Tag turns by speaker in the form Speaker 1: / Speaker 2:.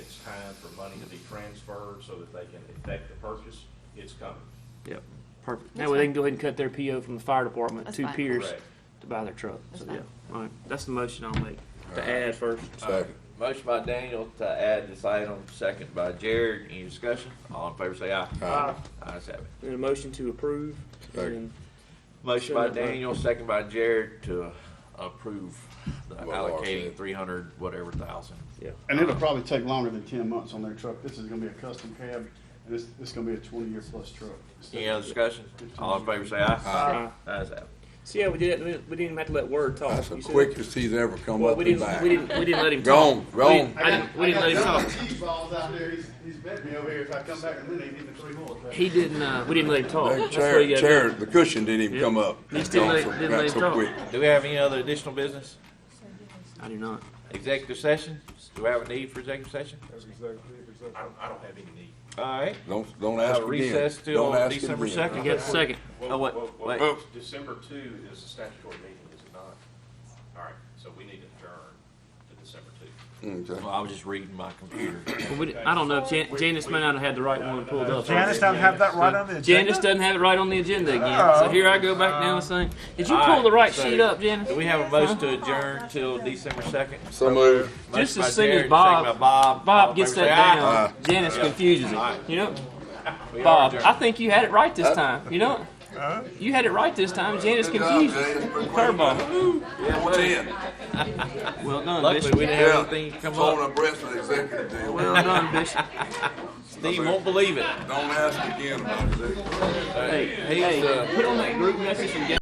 Speaker 1: line for money to be transferred so that they can effect the purchase, it's coming.
Speaker 2: Yep, perfect.
Speaker 3: That's
Speaker 2: Now, they can
Speaker 3: fine.
Speaker 2: go ahead and cut their PO from the fire department
Speaker 3: That's
Speaker 2: to
Speaker 3: fine.
Speaker 2: Pierce
Speaker 1: Correct.
Speaker 2: to buy their truck.
Speaker 3: That's
Speaker 2: So,
Speaker 3: fine.
Speaker 2: yeah, all right, that's the motion I'll make, to add first.
Speaker 4: Second.
Speaker 5: Motion by Daniel to add this item, second by Jared. Any discussion? All in favor say aye.
Speaker 4: Aye.
Speaker 5: Ayes have it.
Speaker 2: And a motion to approve.
Speaker 4: Second.
Speaker 5: Motion by
Speaker 2: Send it back.
Speaker 5: Daniel, second by Jared to approve the
Speaker 4: What Laura
Speaker 5: allocating
Speaker 4: said.
Speaker 5: three hundred whatever thousand.
Speaker 2: Yeah,
Speaker 6: And it'll probably take longer than ten months on their truck. This is gonna be a custom cab, and it's, it's gonna be a twenty-year plus truck.
Speaker 5: Any other discussion? All in favor say aye.
Speaker 2: Aye.
Speaker 5: Ayes have it.
Speaker 2: see how we did that, we didn't- we didn't even have to let Word talk.
Speaker 4: That's
Speaker 2: You
Speaker 4: the
Speaker 2: Uh, said-
Speaker 4: quickest he's ever come
Speaker 2: Well,
Speaker 4: up
Speaker 2: we
Speaker 4: and
Speaker 2: didn't, we
Speaker 4: back.
Speaker 2: didn't, we didn't let him
Speaker 4: Go on,
Speaker 2: talk.
Speaker 4: go
Speaker 2: We
Speaker 4: on.
Speaker 2: didn't- I didn't, we didn't let him talk.
Speaker 6: T-balls out there. He's, he's bet me over here. If I come back and win, they need me three more.
Speaker 2: He didn't, uh, we didn't let him talk.
Speaker 4: The
Speaker 2: That's what
Speaker 4: chair,
Speaker 2: you gotta
Speaker 4: chair,
Speaker 2: do.
Speaker 4: the cushion didn't even
Speaker 2: Yeah.
Speaker 4: come up.
Speaker 2: He still
Speaker 4: Gone
Speaker 2: let-
Speaker 4: so-
Speaker 2: didn't
Speaker 4: got
Speaker 2: let
Speaker 4: so
Speaker 2: it go.
Speaker 4: quick.
Speaker 5: Do we have any other additional business?
Speaker 2: I do not.
Speaker 5: Executive session? Do we have a need for executive session?
Speaker 1: I don't, I don't have any need.
Speaker 5: All right.
Speaker 4: Don't, don't ask
Speaker 5: Uh,
Speaker 4: again.
Speaker 5: recess till
Speaker 4: Don't ask
Speaker 5: December
Speaker 4: again.
Speaker 5: 2nd.
Speaker 2: You got a second?
Speaker 5: Oh, wait, wait.
Speaker 1: December two is a statutory meeting, is it not? All right, so we need to adjourn to December two.
Speaker 4: Okay.
Speaker 5: Well, I was just reading my computer.
Speaker 2: Well, we didn't- I don't know, Jan- Janice may not have had the right one pulled up.
Speaker 7: Janice doesn't have that right on the agenda. Oh.
Speaker 2: Janice doesn't have it right on the agenda again, so here I go back down and saying, did you pull
Speaker 5: Alright,
Speaker 2: the right
Speaker 5: so-
Speaker 2: sheet up, Janice?
Speaker 5: Do we have a motion to adjourn till December second?
Speaker 4: So moved.
Speaker 2: Just as soon as Bob, Bob Ah. gets that down, Janice confuses it. You know, Bob, I think you had it right this time, you know? You had it right this time, Janice confused it. Curveball.
Speaker 4: Ten.
Speaker 2: Well done,
Speaker 5: Luckily, we
Speaker 2: Bishop.
Speaker 5: didn't
Speaker 4: Yeah.
Speaker 5: have anything come
Speaker 4: Phone
Speaker 5: up.
Speaker 4: and breast with executive deal.
Speaker 2: Well
Speaker 4: Don't
Speaker 2: done, Bishop.
Speaker 5: Steve won't believe it.
Speaker 4: ask again about executive.
Speaker 2: Hey,
Speaker 5: He's, uh,
Speaker 2: hey, put on that group message and get